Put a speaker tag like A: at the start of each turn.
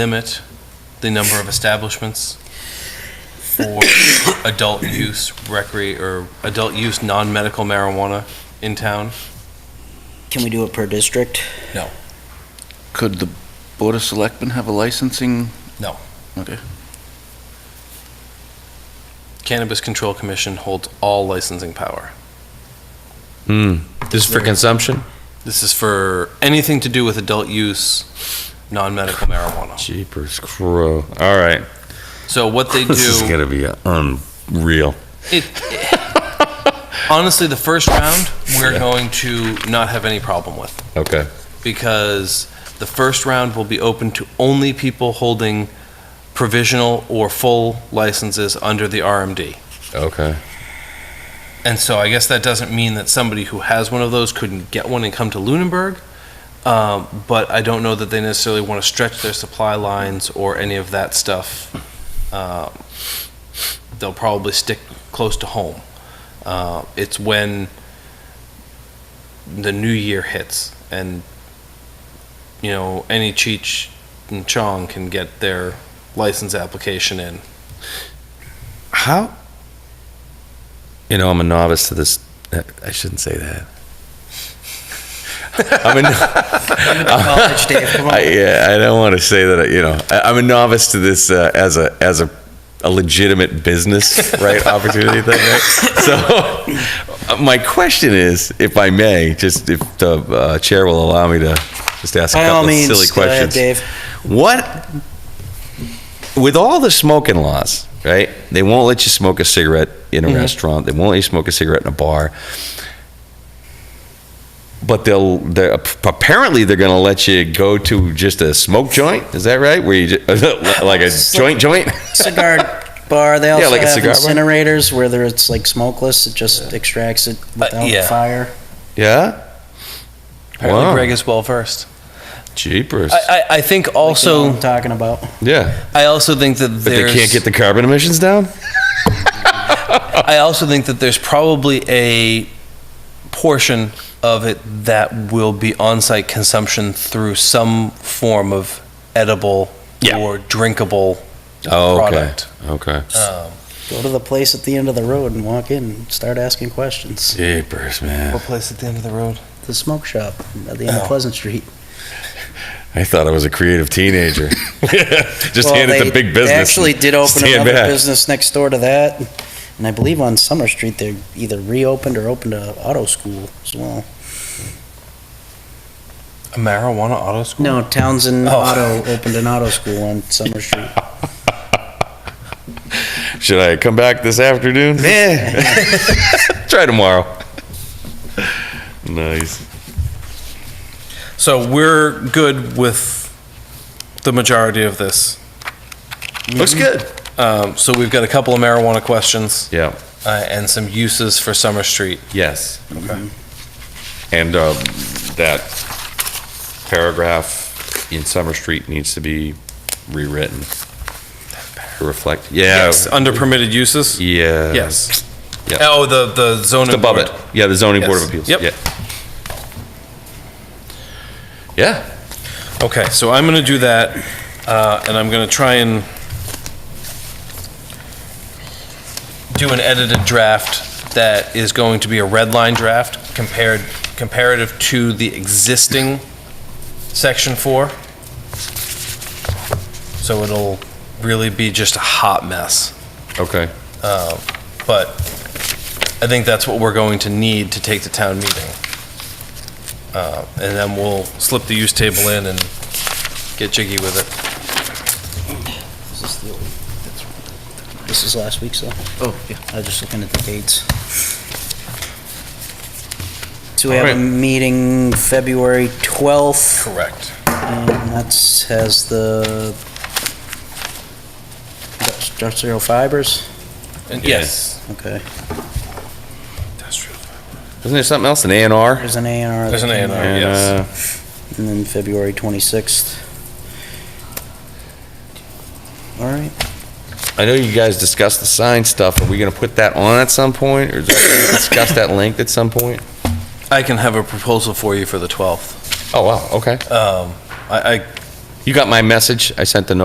A: limit the number of establishments for adult use recre, or adult use non-medical marijuana in town?
B: Can we do it per district?
C: Could the Board of Selectmen have a licensing?
A: No.
C: Okay.
A: Cannabis Control Commission holds all licensing power.
D: Hmm. This is for
A: Yeah.
D: consumption?
A: This is for anything to do with adult use, non-medical marijuana.
D: Jeepers crow. All right.
A: So what they
D: This is
A: do,
D: going to be unreal.
A: it, honestly, the first round, we're going to not have any problem with.
D: Okay.
A: because the first round will be open to only people holding provisional or full licenses under the RMD.
D: Okay.
A: And so I guess that doesn't mean that somebody who has one of those couldn't get one and come to Lunenburg. Um, but I don't know that they necessarily want to stretch their supply lines or any of that stuff. Um, they'll probably stick close to home. Uh, it's when the new year hits and, you know, any Cheech and Chong can get their license application in.
D: How? You know, I'm a novice to this. I shouldn't say that. I'm a,
B: College, Dave, come on.
D: I, yeah, I don't want to say that. You know, I, I'm a novice to this uh, as a as a, a legitimate business right opportunity thing. Right? So, my question is, if I may, just if the uh, chair will allow me to just ask a
B: By all
D: couple of
B: means,
D: silly
B: go ahead,
D: questions.
B: Dave.
D: What with all the smoking laws, right? They won't let you smoke a cigarette in a
A: Mm-hmm.
D: restaurant. They won't let you smoke a cigarette in a bar. But they'll they're apparently they're going to let you go to just a smoke joint. Is that right? Where you just, like a joint joint?
B: Cigar bar, they also
D: like a
B: have
D: cigar bar.
B: incinerators, whether it's like smokeless, it just extracts it
A: Uh, yeah.
B: without fire.
D: Yeah.
A: Apparently
D: Wow.
A: Greg is well versed.
D: Jeepers.
A: I, I, I think
B: Like you know what
A: also,
B: I'm Talking about.
D: yeah.
A: I also think that
D: But
A: there's,
D: they can't get the carbon emissions down.
A: I also think that there's probably a portion of it that will be on-site consumption through some form of edible
D: Yeah.
A: or drinkable
D: Oh, okay.
A: product.
D: Okay.
A: Um,
B: Go to the place at the end of the road and walk in and start asking questions.
D: Jeepers, man.
A: what place at the end of the road?
B: The smoke shop at the end
A: Oh.
B: of Pleasant Street.
D: I thought I was a creative teenager. Just
B: Well,
D: hand it
B: they-
D: to big
B: They
D: business.
B: actually did open
D: Stand
B: another
D: back.
B: business next door to that. And I believe on Summer Street, they either reopened or opened a auto school as well.
A: A marijuana auto school.
B: No, Townsend
A: Oh.
B: Auto opened an auto school on Summer Street.
D: Should I come back this afternoon? Nah. Try tomorrow. Nice.
A: So we're good with the majority of this.
B: Mm-hmm.
D: Looks good.
A: Um, so we've got a couple of marijuana questions
D: Yeah.
A: uh, and some uses for Summer Street.
D: Yes. And um, that paragraph in Summer Street needs to be rewritten to reflect. Yeah.
A: Yes, under permitted uses.
D: Yeah.
A: Yes.
D: Yeah.
A: Oh, the the zoning
D: Just above
A: board.
D: it. Yeah, the zoning board of
A: Yes.
D: appeals.
A: Yep.
D: Yeah. Yeah.
A: Okay, so I'm going to do that, uh, and I'm going to try and do an edited draft that is going to be a red line draft compared, comparative to the existing section four. So it'll really be just a hot mess.
D: Okay.
A: Uh, But I think that's what we're going to need to take to town meeting. Uh, And then we'll slip the use table in and get jiggy with it.
B: Is This the old- that's- this is last week's though? Oh, yeah. I was just looking at the dates. So we have a
D: Alright.
B: meeting February 12th.
A: Correct.
B: Um, That's, has the industrial fibers,
A: And
D: Yeah.
A: yes.
B: okay.
D: Isn't there something else? An A and R?
B: There's an A and R.
A: There's an A&R.
D: And,
A: Yes.
D: uh,
B: And then February 26th. All right,
D: uh, I know you guys discussed the sign stuff. Are we gonna put that on at some point, or is that gonna be discussed at length at some point?
A: I can have a proposal for you for the 12th.
D: Oh, wow, okay.
A: Um, I, I
D: You got my message? I sent the notice